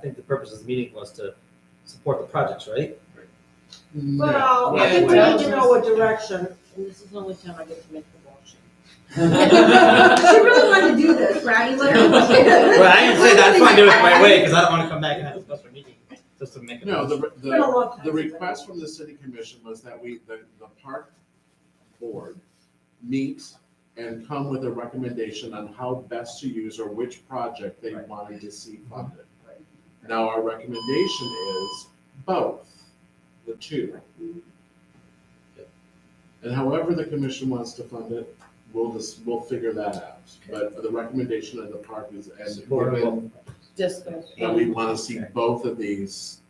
think the purpose of the meeting was to support the projects, right? Well, I Yeah, think we well- need to know what direction, and this is the only time I get to make the motion. She really wanted to do this, right? Like- Well, I didn't say that, I just want to do it my way, because I don't want to come back and have a special meeting, just to make a. No, the, It's been a the, long the time. since I've request from the city commission was that we, the, the park board meet and come with a recommendation on how best to use or which project they Right. wanted to see funded. Right. Now, our recommendation is both, the two. And however the commission wants to fund it, we'll just, we'll figure that out. But the recommendation of the park is, and Support of both. Discussed. that we want to see both of these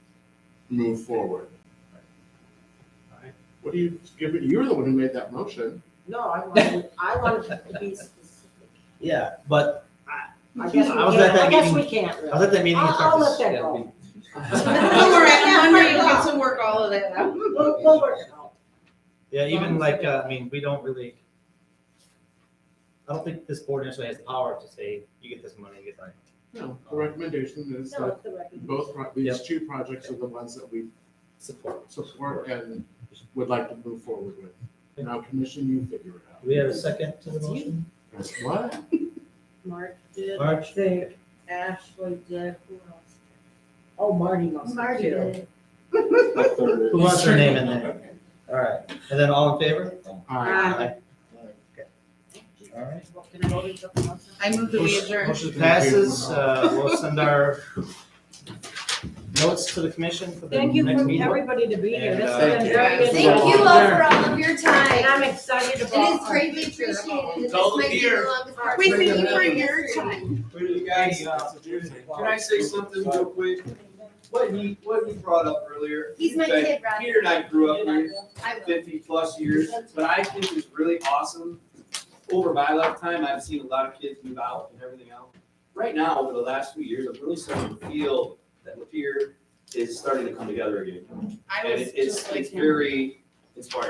move forward. What do you, give it? you're the one who made that motion. No, I wanted, I wanted to be specific. Yeah, but I Yeah, guess we I was at can't, that I guess we meeting. can't I really. was at that meeting. in I'll- I'll Texas. let that Yeah, go. we- Don't worry, I'm hungry, you get to work all of that out. We'll, we'll work it out. Yeah, even like, uh, I mean, we don't really, I don't think this board necessarily has the power to say, you get this money, you get that. No, the recommendation is No, that it's the recommendation. both, pro- these two projects are the ones that we Support. support and would like to move forward with. Now, commission, you figure it out. Do we have a second to the That's you. motion? What? Mark did, March? Dave, Ashley did, who else? Oh, Marty must have Marty too. did. Who wants their name in there? All right, and then all in favor? All right. All right. Well, Can I go to something else? I moved to adjourn. Motion passes, uh, we'll send our notes to the commission for the Thank you next for meeting. everybody to be here. And, This uh, has been very Thank you. good. Thank you all for all of your And time. I'm excited It about. is our greatly future. appreciated. This Don't might be the hear. longest. We part. thank you for your time. Really, guys, uh, can I say something real quick? What he, what he brought up earlier. He's my that kid, Rob. Peter and I grew up here I will. fifty plus years, but I think it's really awesome. Over my lifetime, I've seen a lot of kids move out and everything else. Right now, over the last few years, I'm really starting to feel that Lapeer is starting to come together again. I And was it- it's, just like it's him. very inspiring.